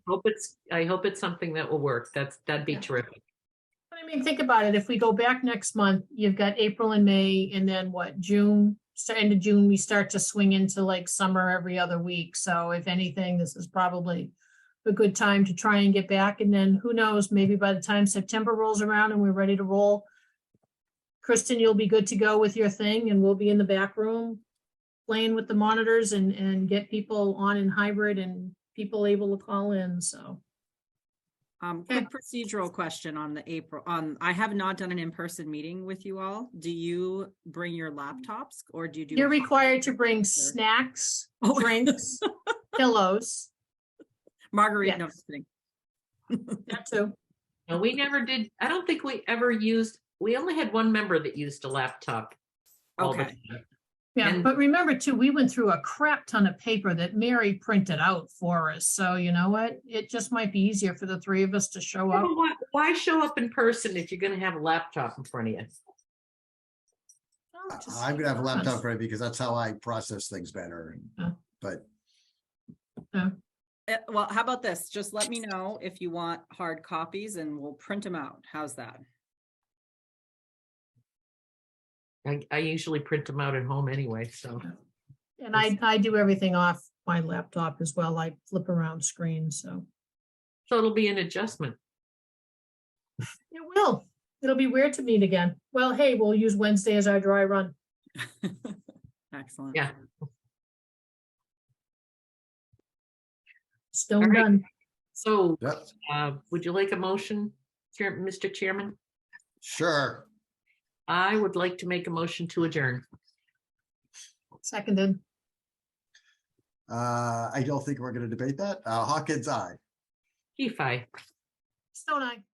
Hope it's, I hope it's something that will work. That's, that'd be Yeah. terrific. But I mean, think about it. If we go back next month, you've got April and May and then what, June? So end of June, we start to swing into like summer every other week. So if anything, this is probably a good time to try and get back. And then who knows, maybe by the time September rolls around and we're ready to roll, Kristen, you'll be good to go with your thing and we'll be in the back room playing with the monitors and, and get people on in hybrid and people able to call in. So. Um, Okay. quick procedural question on the April, on, I have not done an in-person meeting with you all. Do you bring your laptops or do you do? You're a- required to bring snacks, Oh. drinks, pillows, Marguerite, no, Yes. just kidding. that too. No, we never did, I don't think we ever used, we only had one member that used a laptop. all the Okay. time. Yeah, And- but remember too, we went through a crap ton of paper that Mary printed out for us. So you know what? It just might be easier for the three of us to show Well, up. Why, why show up in person if you're gonna have a laptop in front of you? Oh, just- I'm gonna have a laptop ready because that's how I process things better. Oh. But Eh, Well, how about this? Just let me know if you want hard copies and we'll print them out. How's that? I, I usually print them out at home anyway, so. And I, I do everything off my laptop as well. I flip around screens, so So it'll be an adjustment. it will. It'll be weird to meet again. Well, hey, we'll use Wednesday as our dry run. Excellent. Yeah. All Stone right. done. So, yeah, uh, would you like a motion, Chair- Mr. Chairman? sure. I would like to make a motion to adjourn. Seconded. Uh, I don't think we're gonna debate that. Uh, Hawkins, aye. Kefi. Stone eye.